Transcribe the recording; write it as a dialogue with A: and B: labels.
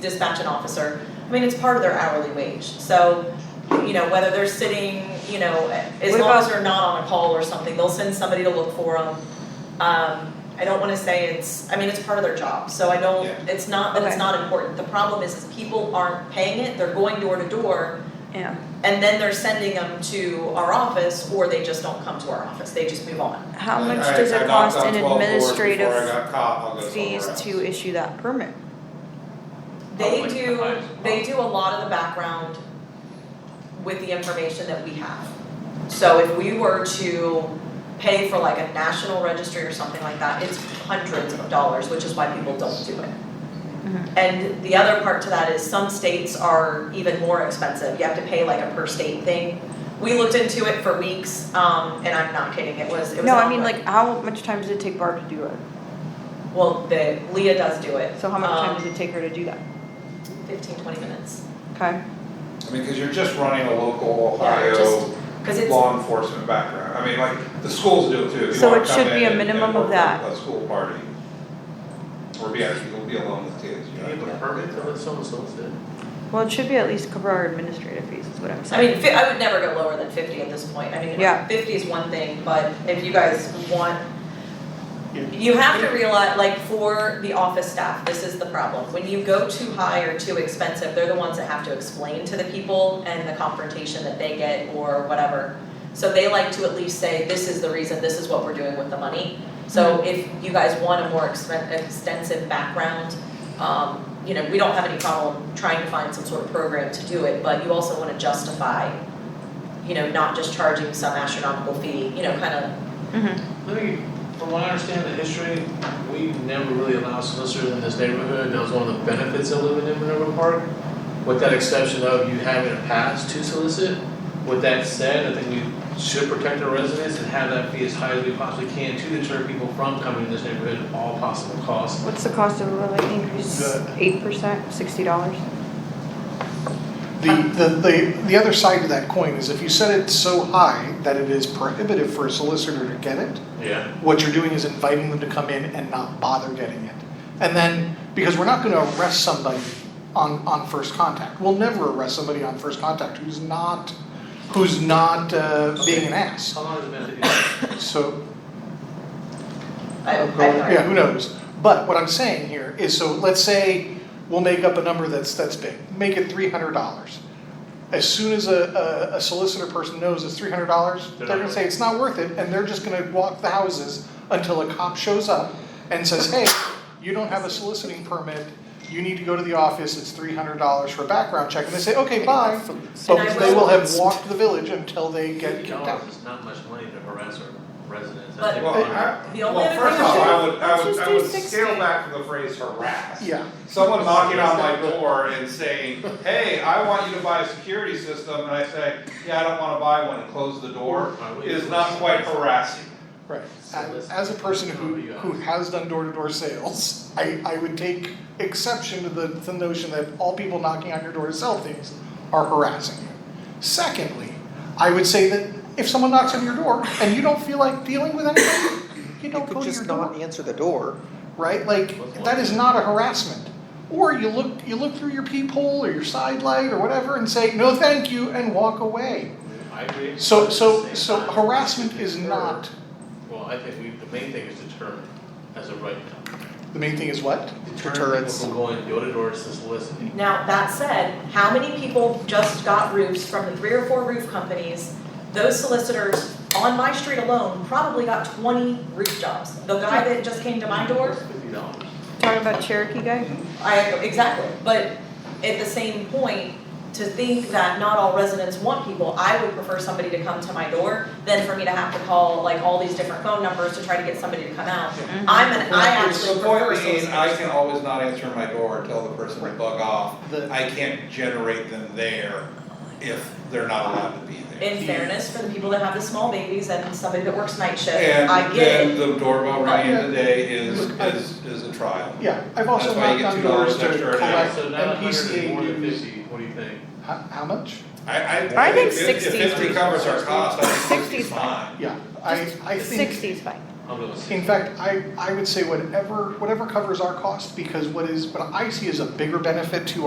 A: dispatch an officer, I mean, it's part of their hourly wage, so, you know, whether they're sitting, you know, as
B: What
A: long as
B: about-
A: they're not on a call or something, they'll send somebody to look for them. Um, I don't wanna say it's, I mean, it's part of their job, so I don't,
C: Yeah.
A: it's not, that it's
B: Okay.
A: not important, the problem is, is people aren't paying it, they're going door to door,
B: Yeah.
A: and then they're sending them to our office, or they just don't come to our office, they just move on.
B: How
C: Like,
B: much
C: I-
B: does
C: I
B: it
C: knocked
B: cost
C: on
B: in
C: 12 doors Before I
B: administrative
C: got caught, I'll go somewhere
B: fees
C: else.
B: to issue that permit?
A: They
D: Public
A: do,
D: eyes.
A: they do a lot of the background with the information that we have. So if we were to pay for like a national registry or something like that, it's hundreds of dollars, which is why people don't do it.
B: Mhm.
A: And the other part to that is some states are even more expensive, you have to pay like a per state thing. We looked into it for weeks, um, and I'm not kidding, it was, it was.
B: No,
A: an
B: I mean,
A: ongoing-
B: like, how much time does it take Barb to do it?
A: Well, the, Leah does do it.
B: So how much time does
A: um,
B: it take her to do that?
A: Fifteen, twenty minutes.
B: Okay,
C: I mean, cause you're just running a local
A: Yeah,
C: Ohio
A: just- Cause it's,
C: law enforcement background, I mean, like, the schools do it too, if you
B: So
C: wanna
B: it
C: come
B: should
C: in
B: be a
C: and- and
B: minimum of
C: work
B: that.
C: at a school party. Or be, out- you'll be alone with kids, you
D: Do you
C: know.
D: have a permit to let someone solicit?
B: well, it should be at least cover our administrative fees, is what I'm
A: I
B: saying.
A: mean, fi- I would never go lower than fifty at this point, I mean, you know,
B: Yeah.
A: fifty is one thing, but if you guys want.
D: Yeah.
A: You have to realize, like, for the office staff, this is the problem, when you go too high or too expensive, they're the ones that have to explain to the people and the confrontation that they get or whatever. So they like to at least say, this is the reason, this is what we're doing with the money, so if you guys want a more expen- extensive background, um, you know, we don't have any problem trying to find some sort of program to do it, but you also wanna justify, you know, not just charging some astronomical fee, you know, kind of,
B: Mhm.
D: Let me, from what I understand the history, we never really allowed solicitors in this neighborhood, that was one of the benefits of living in Minerva Park. With that exception of you having a pass to solicit, with that said, I think we should protect our residents and have that be as high as we possibly can to deter people from coming in this neighborhood at all possible costs.
B: What's the cost of a rate increase?
E: Good.
B: Eight percent, sixty dollars?
E: The, the, the, the other side of that coin is if you set it so high that it is prohibitive for a solicitor to get it,
D: Yeah.
E: what you're doing is inviting them to come in and not bother getting it. And then, because we're not gonna arrest somebody on, on first contact, we'll never arrest somebody on first contact who's not, who's not, uh, being an ass.
D: How long has it been? that
E: So,
A: I, I
E: Of course, yeah, who knows? But what I'm saying here is, so let's say we'll make up a number that's, that's big, make it three hundred dollars. As soon as a, a- a solicitor person knows it's three hundred dollars,
D: They're
E: they're
D: not
E: gonna say it's not worth it, and they're just gonna walk the houses until a cop shows up and says, hey, you don't have a soliciting permit, you need to go to the office, it's three hundred dollars for a background check, and they say, okay, bye.
A: And I
E: But they will have
A: will-
E: walked the village until they
D: you
E: get
D: did?
E: kicked out.
D: Dollars is not much money to harass our residents. I
A: But-
D: think
C: Well,
D: we're-
C: I,
A: The only
C: well,
A: other
C: first
A: thing I
C: off,
A: should-
C: I would, I
B: let's
C: would,
B: just
C: I
B: do
C: would
B: 60.
C: scale back to the phrase harass.
E: Yeah.
C: Someone knocking on my door and saying, hey, I want you to buy a security system, and I say, yeah, I don't wanna buy one, and close the door, is not quite harassing.
E: Right,
D: So
E: as,
D: let's-
E: as a person who,
D: Oh, yeah.
E: who has done door-to-door sales, I, I would take exception to the, the notion that all people knocking on your door to sell things are harassing you. Secondly, I would say that if someone knocks on your door and you don't feel like dealing with anybody, you
F: You
E: don't go
F: could
E: to your
F: just not
E: door,
F: answer the door.
E: right? Like, that is not a harassment. Or you look, you look through your peephole or your side light or whatever and say, no, thank you, and walk away.
D: I agree.
E: So,
D: But at
E: so,
D: the same
E: so
D: time,
E: harassment
D: we
E: is
D: deter-
E: not,
D: Well, I think we, the main thing is deter as a right now.
E: the main thing is what?
D: Deter people
F: Deterrence.
D: from going door to door to soliciting.
A: Now, that said, how many people just got roofs from the three or four roof companies? Those solicitors on my street alone probably got twenty roof jobs. The guy that just came to my door,
D: Fifty dollars.
B: Talking about Cherokee guy?
A: I, exactly, but at the same point, to think that not all residents want people, I would prefer somebody to come to my door than for me to have to call like all these different phone numbers to try to get somebody to come out. I'm an, I actually prefer
C: The point being, I
A: solicitors.
C: can always not answer my door and tell the person to bug off,
F: The-
C: I can't generate them there if they're not allowed to be there.
A: In fairness, for the people that have the small babies and somebody that works night shift,
C: And
A: I get it.
C: then the doorbell ringing
E: Yeah.
C: today is,
E: Look, I-
C: is, is a trial.
E: Yeah, I've also
C: That's why you
E: knocked
C: get
E: on
C: $2
E: doors to
C: extra an
E: collect
D: So now a hundred is more
E: MPCA
D: than
E: dues.
D: fifty, what do you think?
E: How, how much?
C: I, I,
B: I think
C: if, if
B: 60
C: fifty covers our cost, I think
B: 60
C: 60
B: is
C: is fine.
E: Yeah, I, I think,
B: Sixty's fine.
D: I'm gonna say.
E: In fact, I, I would say whatever, whatever covers our cost, because what is, what I see is a bigger benefit to